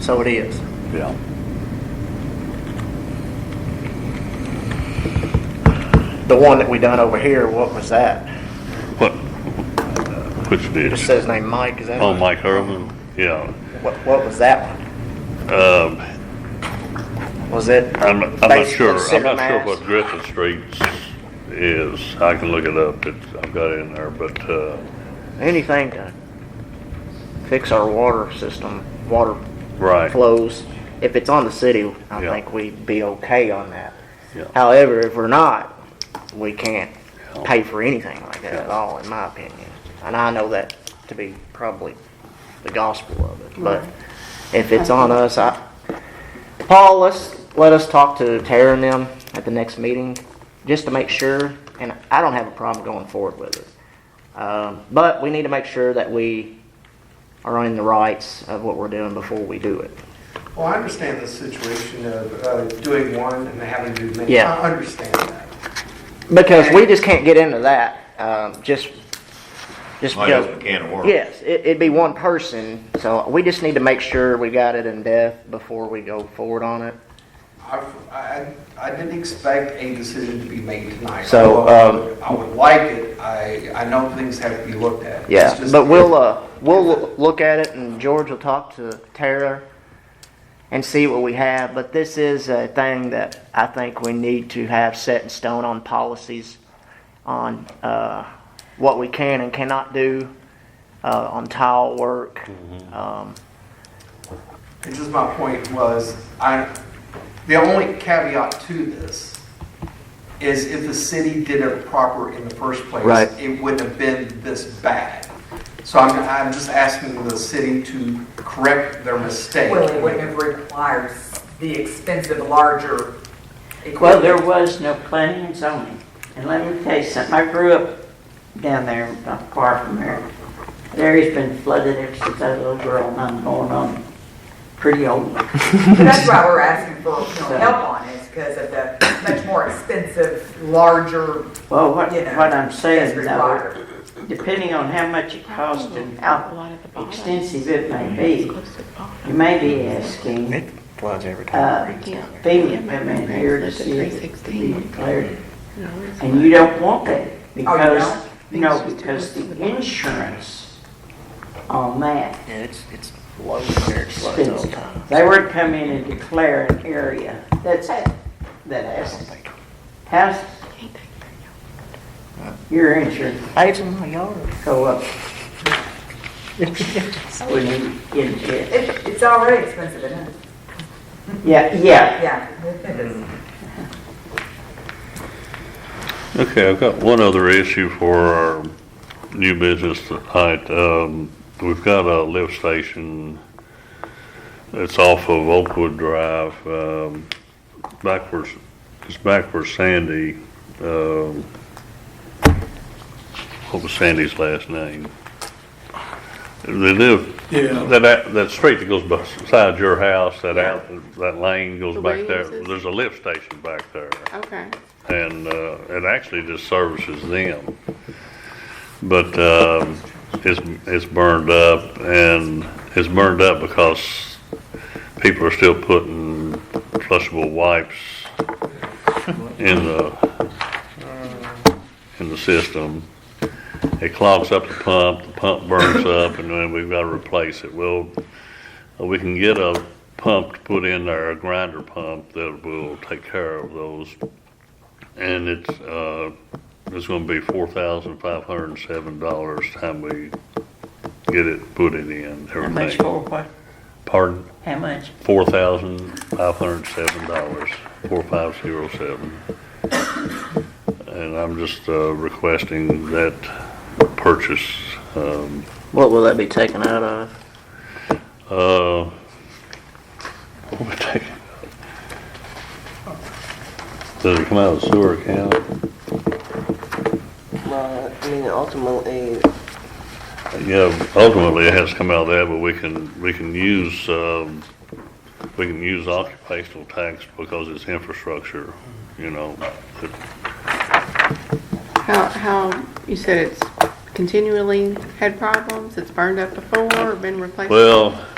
so it is. Yeah. The one that we done over here, what was that? What, which It ditch? says name Mike, is that? Oh, it? Mike Herman, yeah. What, what was that one? Um, Was it? I'm, I'm not basically sure, I'm center not sure mass? what Griffin Street is. I can look it up, it's, I've got it in there, but, uh, Anything to fix our water system, water right. flows. If it's on the city, I Yeah. think we'd be okay on that. Yeah. However, if we're not, we can't Yeah. pay for anything like that at Yeah. all, in my opinion. And I know that to be probably the gospel of it, but if it's on us, I, Paul, let's, let us talk to Tara and them at the next meeting, just to make sure, and I don't have a problem going forward with it. Um, but we need to make sure that we are in the rights of what we're doing before we do it. Well, I understand the situation of uh, doing one and having to do many. Yeah. I understand that. Because we just can't get into that, um, just, just Might because. open a can of worms. Yes, it, it'd be one person, so we just need to make sure we got it in depth before we go forward on it. I've- I, I didn't expect a decision to be made tonight. So, um, Although I would like it. I, I know things have to be looked at. It's Yeah, just- but we'll, uh, we'll look at it and George will talk to Tara and see what we have, but this is a thing that I think we need to have set in stone on policies on, uh, what we can and cannot do, uh, on tile work. Um, It's just my point was, I, the only caveat to this is if the city did it proper in the first place. Right. It wouldn't have been this bad. So I'm, I'm just asking the city to correct their mistake. Well, it wouldn't have required the expensive larger equipment. Well, there was no planning and zoning. And let me tell you something, I grew up down there, not far from there. The area's been flooded ever since I was a little girl, and I'm going on pretty old. But That's why we're asking for, you know, help on it, because of the much more expensive, larger, Well, what, you know. what I'm saying that's though, required. depending on how much it costs and how at the extensive it may be, you may be asking, It floods every uh, Yeah. FEMA to come in here to see if it can be 316. declared And you don't want that because, don't? no, because the insurance on that Yeah, it's, it's low compared to floods all the expensive. time. They were to come in and declare an area that's, that has, has your insurance Paves in my yard. go up. When you get into it. It, it's already expensive, isn't it? Yeah, yeah. Yeah. it is. Okay, I've got one other issue for our new business tonight. Um, we've got a lift station. It's off of Oakwood Drive, um, backwards, it's backwards Sandy, um, what was Sandy's last name? They live, that, that, that street that goes beside your house, that out, that lane goes The back there. Williamses? There's a lift station back there Okay. and uh, it actually just services them. But um, it's it's burned up, and it's burned up because people are still putting flushable wipes in the in the system. It clogs up the pump. The pump burns up, and then we've got to replace it. Well, we can get a pump to put in there, a grinder pump that will take care of those and it's, uh, it's gonna be four thousand five hundred and seven dollars time we get it put it in, How much everything. for what? Pardon, How much? four thousand five hundred and seven dollars, four five zero seven. And I'm just, uh, requesting that purchase, um, What will that be taken out of? uh, what we take? Does it come out of the sewer account? Well, I mean, ultimately, Yeah, ultimately it has to come out of that, but we can, we can use, um, we can use occupational tax because it's infrastructure, you know. But How, how, you said it's continually had problems, it's burned up before, been replaced? Well,